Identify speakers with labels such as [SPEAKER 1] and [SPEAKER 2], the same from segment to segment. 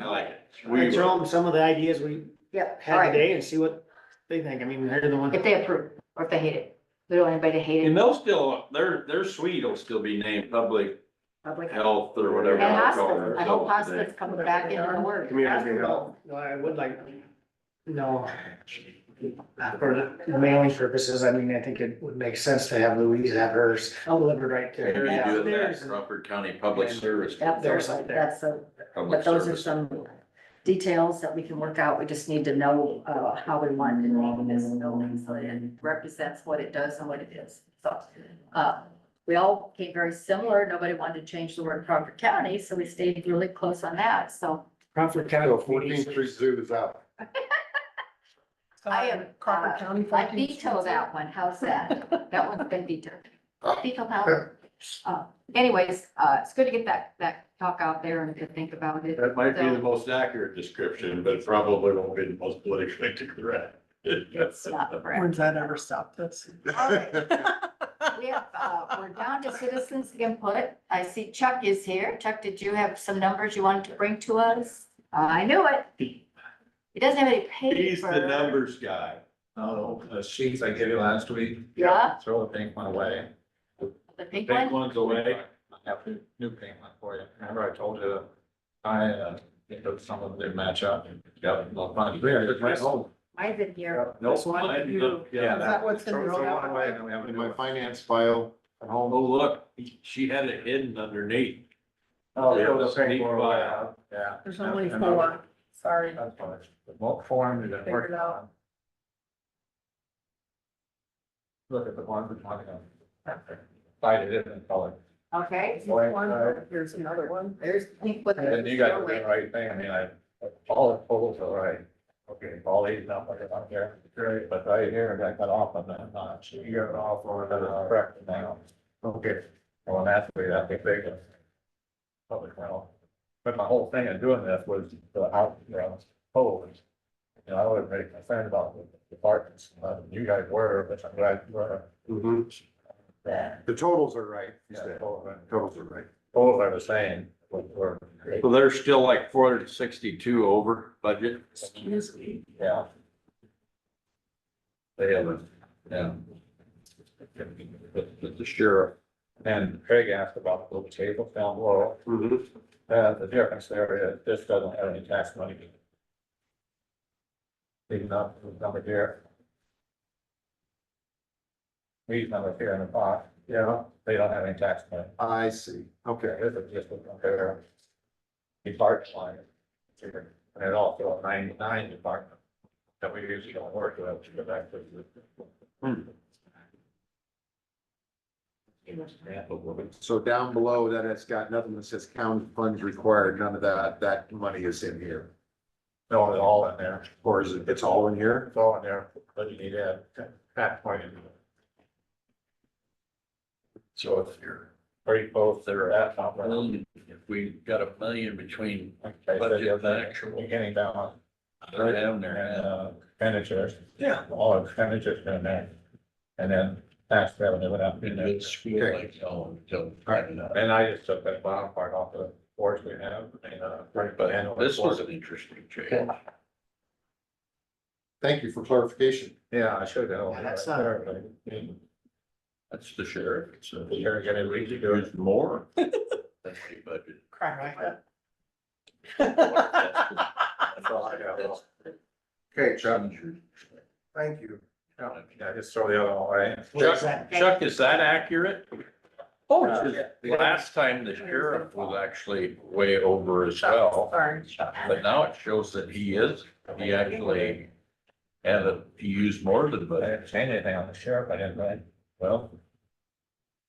[SPEAKER 1] I like it.
[SPEAKER 2] We-
[SPEAKER 3] throw them some of the ideas we
[SPEAKER 4] Yep, all
[SPEAKER 3] had
[SPEAKER 4] right,
[SPEAKER 3] today and see what they think. I mean, they're the
[SPEAKER 4] if
[SPEAKER 3] one,
[SPEAKER 4] they approve, or if they hate it, we don't want anybody to hate
[SPEAKER 1] And
[SPEAKER 4] it
[SPEAKER 1] they'll still, their, their suite will still be named public
[SPEAKER 4] public. And
[SPEAKER 1] health or whatever. they're
[SPEAKER 4] hospice,
[SPEAKER 1] calling
[SPEAKER 4] I hope
[SPEAKER 1] themselves today.
[SPEAKER 4] hospice comes back into the word.
[SPEAKER 2] Community health.
[SPEAKER 3] no, I would like, no. For the mailing purposes, I mean, I think it would make sense to have Louise have hers delivered right to her
[SPEAKER 1] Maybe doing
[SPEAKER 3] downstairs.
[SPEAKER 1] that, Crawford County Public Service.
[SPEAKER 4] That's,
[SPEAKER 3] There's
[SPEAKER 4] all right,
[SPEAKER 3] there.
[SPEAKER 4] that's, a-
[SPEAKER 1] Public
[SPEAKER 4] but those are
[SPEAKER 1] service.
[SPEAKER 4] some details that we can work out, we just need to know, uh, how we want to name this building, so that it represents what it does and what it is, so. Uh, we all came very similar, nobody wanted to change the word Crawford County, so we stayed really close on that, so.
[SPEAKER 3] Crawford
[SPEAKER 2] So
[SPEAKER 3] County.
[SPEAKER 2] Fourteenth Street Zoo is out.
[SPEAKER 4] I am,
[SPEAKER 5] Crawford
[SPEAKER 4] uh,
[SPEAKER 5] County.
[SPEAKER 4] I
[SPEAKER 5] 14th
[SPEAKER 4] veto
[SPEAKER 5] Street.
[SPEAKER 4] that one, how's that? That one's been vetoed. Veto power. Uh, Anyways, uh, it's good to get that, that talk out there and to think about it.
[SPEAKER 1] That might be
[SPEAKER 4] So-
[SPEAKER 1] the most accurate description, but it probably won't be the most politically correct.
[SPEAKER 4] It's not correct.
[SPEAKER 5] When's that ever stopped us?
[SPEAKER 4] All We have, uh, we're down to citizens input. I see Chuck is here. Chuck, did you have some numbers you wanted to bring to us? Uh, I knew it. He doesn't have any paper.
[SPEAKER 1] He's the numbers guy.
[SPEAKER 6] Oh, the sheets I gave you last week,
[SPEAKER 4] Yeah,
[SPEAKER 6] throw the pink one away.
[SPEAKER 4] the big
[SPEAKER 1] Take
[SPEAKER 4] one.
[SPEAKER 1] ones away.
[SPEAKER 6] I have a new pink one for you. Remember I told you, I, uh, think that some of them didn't match up. Yep, no fun. Yeah, it's right home.
[SPEAKER 4] Mine's in here.
[SPEAKER 6] Nope.
[SPEAKER 1] Mine's up,
[SPEAKER 6] Yeah,
[SPEAKER 1] yeah.
[SPEAKER 5] that what's in
[SPEAKER 6] Throw
[SPEAKER 5] the-
[SPEAKER 6] throw one away and then we have a
[SPEAKER 2] In
[SPEAKER 6] new
[SPEAKER 2] my
[SPEAKER 6] one.
[SPEAKER 2] finance file at
[SPEAKER 1] Oh,
[SPEAKER 2] home.
[SPEAKER 1] look, she had it hidden underneath.
[SPEAKER 6] Oh,
[SPEAKER 1] Yeah,
[SPEAKER 6] throw the
[SPEAKER 1] it's
[SPEAKER 6] pink
[SPEAKER 1] neat
[SPEAKER 6] one
[SPEAKER 1] file.
[SPEAKER 6] away. Yeah.
[SPEAKER 5] There's only
[SPEAKER 6] And- and I'll-
[SPEAKER 5] four, sorry.
[SPEAKER 6] That's fine. The bulk form is
[SPEAKER 5] Figure it
[SPEAKER 6] important.
[SPEAKER 5] out.
[SPEAKER 6] Look at the one we're talking about. Find it in color.
[SPEAKER 4] Okay,
[SPEAKER 5] Here's one, Here's another one.
[SPEAKER 4] there's pink with.
[SPEAKER 6] And you guys are doing the right thing, I mean, I, all the totals are right, okay, all eight, not like I'm here, great, but right here, I got off on that notch, you got off on another correct now. Okay. Well, and that's the way that big thing is. Public health, but my whole thing of doing this was the outgrounds, totals. You know, I was very concerned about the departments, uh, you guys were, but I'm glad you were.
[SPEAKER 2] Mhm. The totals are right. you
[SPEAKER 6] Yeah,
[SPEAKER 2] said.
[SPEAKER 6] totals
[SPEAKER 2] Totals are right.
[SPEAKER 6] are the same, but were,
[SPEAKER 1] So they're still like four hundred and sixty-two over budget.
[SPEAKER 5] Excuse me.
[SPEAKER 6] yeah. They haven't, yeah. The- The sheriff and Craig asked about the table down below,
[SPEAKER 2] Mhm.
[SPEAKER 6] uh, the difference there is this doesn't have any tax money. Even up to the number here. These numbers here in the box, yeah, they don't have any tax money.
[SPEAKER 2] I see. Okay.
[SPEAKER 6] This is just a compare. Department line. And it also a ninety-nine department. That we usually don't work with, to go back to
[SPEAKER 1] Hmm.
[SPEAKER 6] the. Yeah, but we're-
[SPEAKER 2] So down below that, it's got nothing that says county funds required. None of that, that money is in here.
[SPEAKER 6] No, it's all in there,
[SPEAKER 2] Or is it, it's all in here?
[SPEAKER 6] it's all in there, but you need to add that point in. So if you're pretty close there at top. level.
[SPEAKER 7] If we got a million between
[SPEAKER 6] Okay, so you have the actual beginning balance.
[SPEAKER 7] other down
[SPEAKER 6] and
[SPEAKER 7] there,
[SPEAKER 6] uh, expenditures.
[SPEAKER 7] Yeah.
[SPEAKER 6] All expenditures down there. And then tax revenue would have been
[SPEAKER 7] and
[SPEAKER 6] there.
[SPEAKER 7] it's school like hell until.
[SPEAKER 6] And I just took that bottom part off the boards we have and uh.
[SPEAKER 7] But this was an interesting change.
[SPEAKER 2] Thank you for clarification.
[SPEAKER 6] Yeah, I should have.
[SPEAKER 3] Yeah, that's uh, not-
[SPEAKER 7] That's the sheriff. It's a-
[SPEAKER 6] You're gonna read to do it.
[SPEAKER 7] There's more. That's the budget.
[SPEAKER 5] Cry
[SPEAKER 7] That's-
[SPEAKER 6] That's all I got.
[SPEAKER 7] that's-
[SPEAKER 2] Okay, Thank you.
[SPEAKER 6] Yeah, just throw the other one away.
[SPEAKER 1] Chuck, Chuck, is that accurate?
[SPEAKER 6] Oh,
[SPEAKER 1] Last time the sheriff was actually way over as well,
[SPEAKER 5] Sorry, Chuck.
[SPEAKER 1] but now it shows that he is, he actually had a, he used more than
[SPEAKER 6] I
[SPEAKER 1] budget.
[SPEAKER 6] didn't change anything on the sheriff, I didn't, right? Well,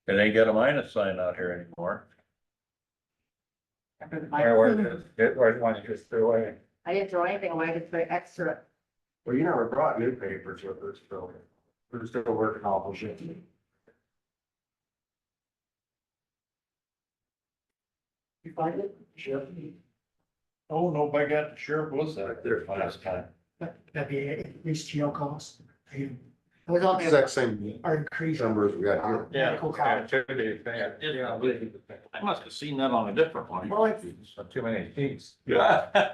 [SPEAKER 1] It ain't got a minus sign out here anymore.
[SPEAKER 6] where was it? It was one you just threw away.
[SPEAKER 4] I didn't throw anything away, I just put extra.
[SPEAKER 2] Well, you never brought new papers with us, so we're still working off of it.
[SPEAKER 4] You find it?
[SPEAKER 7] Oh, no, by God, the sheriff was out there last time.
[SPEAKER 3] That'd be at least jail costs, and
[SPEAKER 4] It was only.
[SPEAKER 2] Exact same
[SPEAKER 3] are increased.
[SPEAKER 2] numbers we got here.
[SPEAKER 1] Yeah.
[SPEAKER 3] Medical costs.
[SPEAKER 6] Yeah, too many things.
[SPEAKER 1] I must have seen that on a different one.
[SPEAKER 4] Well, it's-
[SPEAKER 6] Too many things.
[SPEAKER 1] Yeah.